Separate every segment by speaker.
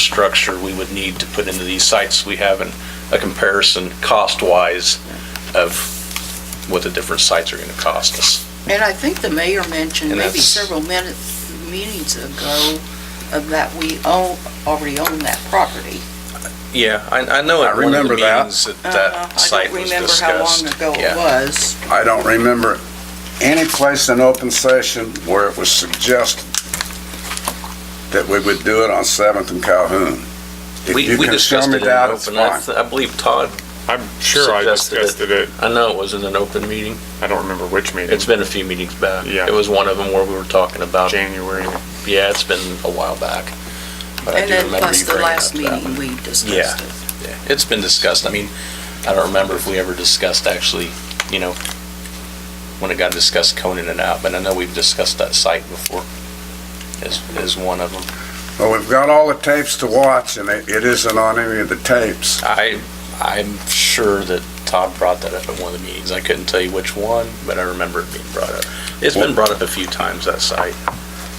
Speaker 1: infrastructure we would need to put into these sites, we have an- a comparison cost-wise of what the different sites are going to cost us.
Speaker 2: And I think the mayor mentioned
Speaker 1: And
Speaker 2: maybe
Speaker 1: that's-
Speaker 2: several minutes, meetings ago, of that we own, already own that property.
Speaker 1: Yeah, I, I know
Speaker 3: I
Speaker 1: at one of the
Speaker 3: remember that.
Speaker 1: meetings that
Speaker 2: Uh,
Speaker 1: that site was discussed.
Speaker 2: I don't remember how long ago
Speaker 1: Yeah.
Speaker 2: it was.
Speaker 3: I don't remember any place in open session where it was suggested that we would do it on Seventh and Calhoun. If
Speaker 1: We,
Speaker 3: you
Speaker 1: we
Speaker 3: can show
Speaker 1: discussed
Speaker 3: me
Speaker 1: it in
Speaker 3: that, it's
Speaker 1: open, I,
Speaker 3: fine.
Speaker 1: th- I believe Todd,
Speaker 4: I'm sure I
Speaker 1: Suggested it.
Speaker 4: discussed it,
Speaker 1: I know it was in an open meeting.
Speaker 4: at- I don't remember which meeting,
Speaker 1: It's been a few meetings back.
Speaker 4: Yeah.
Speaker 1: It was one of them where we were talking about,
Speaker 4: January.
Speaker 1: yeah, it's been a while back. But I
Speaker 2: And
Speaker 1: do
Speaker 2: then
Speaker 1: remember
Speaker 2: plus
Speaker 1: you
Speaker 2: the
Speaker 1: bringing
Speaker 2: last
Speaker 1: up that one.
Speaker 2: meeting, we discussed
Speaker 1: Yeah.
Speaker 2: it.
Speaker 1: It's been discussed. I mean, I don't remember if we ever discussed actually, you know, when it got discussed Conan and out, but I know we've discussed that site before as, as one of them.
Speaker 3: Well, we've got all the tapes to watch, and it, it isn't on any of the tapes.
Speaker 1: I, I'm sure that Todd brought that up at one of the meetings. I couldn't tell you which one, but I remember it being brought up. It's been brought up a few times, that site.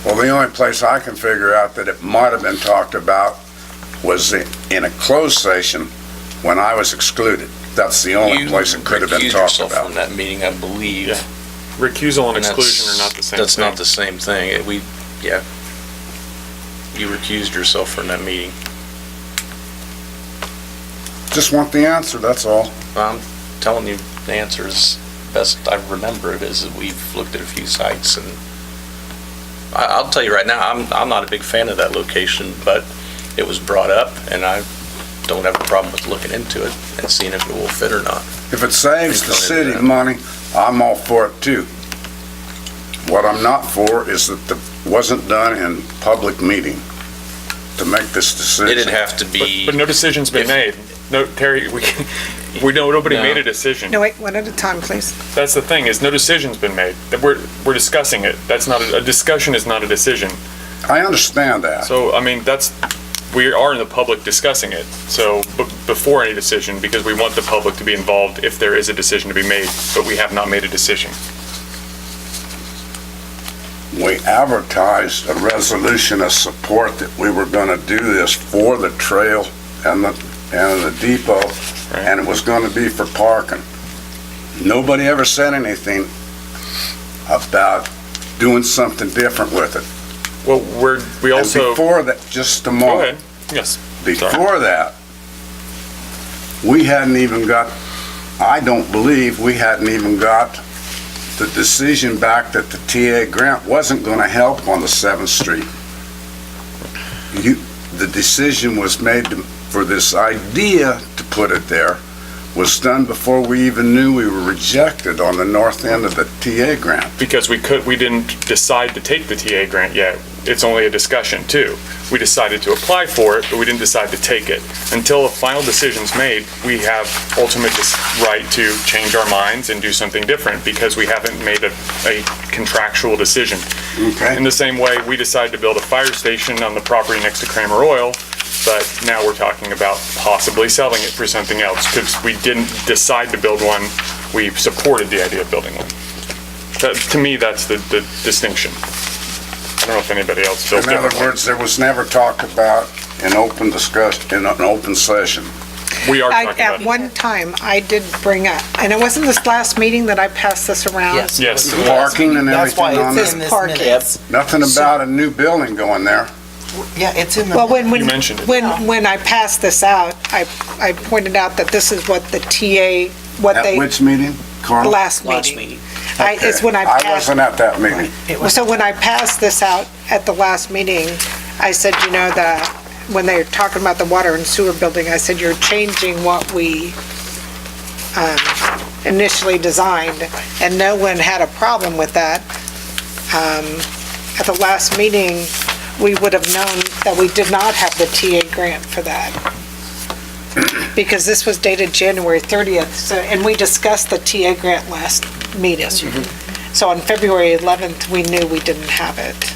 Speaker 3: Well, the only place I can figure out that it might have been talked about was i- in a closed session when I was excluded. That's the only
Speaker 1: You
Speaker 3: place it could have been
Speaker 1: recused
Speaker 3: talked
Speaker 1: yourself
Speaker 3: about.
Speaker 1: From that meeting, I believe.
Speaker 4: Yeah, Recusal and
Speaker 1: And that's-
Speaker 4: exclusion are not the same
Speaker 1: That's not
Speaker 4: thing.
Speaker 1: the same thing. It- We, yeah. You recused yourself from that meeting.
Speaker 3: Just want the answer, that's all.
Speaker 1: I'm telling you, the answer is, best I remember it is that we've looked at a few sites and I, I'll tell you right now, I'm, I'm not a big fan of that location, but it was brought up and I don't have a problem with looking into it and seeing if it will fit or not.
Speaker 3: If it saves the
Speaker 1: Think on it,
Speaker 3: city
Speaker 1: Brad.
Speaker 3: money, I'm all for it too. What I'm not for is that it wasn't done in public meeting to make this
Speaker 1: It
Speaker 3: decision.
Speaker 1: didn't have to
Speaker 4: But,
Speaker 1: be,
Speaker 4: but no decision's been made. No, Terry, we, we know, nobody
Speaker 1: No.
Speaker 4: made a decision.
Speaker 5: No, wait, one at a time, please.
Speaker 4: That's the thing, is no decision's been made. That we're, we're discussing it. That's not, a a discussion is not a decision.
Speaker 3: I understand that.
Speaker 4: So, I mean, that's, we are in the public discussing it, so, b- before any decision, because we want the public to be involved if there is a decision to be made, but we have not made a decision.
Speaker 3: We advertised a resolution of support that we were gonna do this for the trail and the, and the depot, and it was gonna be for parking. Nobody ever said anything about doing something different with it.
Speaker 4: Well, we're, we
Speaker 3: And
Speaker 4: also, go
Speaker 3: before that, just a moment.
Speaker 4: ahead, yes.
Speaker 3: Before that, we hadn't even got, I don't believe, we hadn't even got the decision back that the TA grant wasn't going to help on the 7th Street. You, the decision was made to- for this idea, to put it there, was done before we even knew we were rejected on the north end of the TA grant.
Speaker 4: because we could, we didn't decide to take the TA grant yet. It's only a discussion too. We decided to apply for it, but we didn't decide to take it. Until a final decision's made, we have ultimate dis- right to change our minds and do something different because we haven't made a, a contractual decision. In
Speaker 3: Okay?
Speaker 4: the same way, we decided to build a fire station on the property next to Kramer Oil, but now we're talking about possibly selling it for something else because we didn't decide to build one. We supported the idea of building one. That, to me, that's the, the distinction. I don't know if anybody else feels
Speaker 3: In other
Speaker 4: differently.
Speaker 3: words, there was never talk about an open discussion, in an open session.
Speaker 4: We are
Speaker 5: I,
Speaker 4: talking about
Speaker 5: at
Speaker 4: it.
Speaker 5: one time, I did bring up, and it wasn't this last meeting that I passed this around.
Speaker 6: Yes.
Speaker 4: Yes.
Speaker 3: Parking and everything on it.
Speaker 6: That's why it's in this
Speaker 5: Parking.
Speaker 6: minutes.
Speaker 3: Nothing about a new building going there.
Speaker 6: Yeah, it's in the.
Speaker 5: Well, when, when.
Speaker 4: You mentioned it.
Speaker 3: Oh.
Speaker 5: When, when I passed this out, I, I pointed out that this is what the TA, what
Speaker 3: At
Speaker 5: they,
Speaker 3: which meeting,
Speaker 5: the
Speaker 3: Carl?
Speaker 5: last
Speaker 6: Last
Speaker 5: meeting.
Speaker 6: meeting.
Speaker 5: I, it's when I
Speaker 3: Okay. I
Speaker 5: passed,
Speaker 3: wasn't at that meeting.
Speaker 6: It was,
Speaker 5: so when I passed this out at the last meeting, I said, you know, the, when they were talking about the water and sewer building, I said, you're changing what we, um, initially designed, and no one had a problem with that. Um, at the last meeting, we would have known that we did not have the TA grant for that. Because this was dated January 30th, so, and we discussed the TA grant last meeting. So on February 11th, we knew we didn't have it.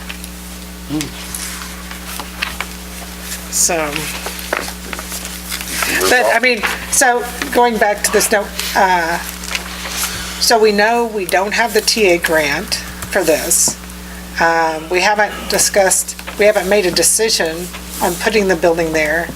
Speaker 5: So, but, I mean, so, going back to this note, uh, so we know we don't have the TA grant for this. Um, We haven't discussed, we haven't made a decision on putting the building there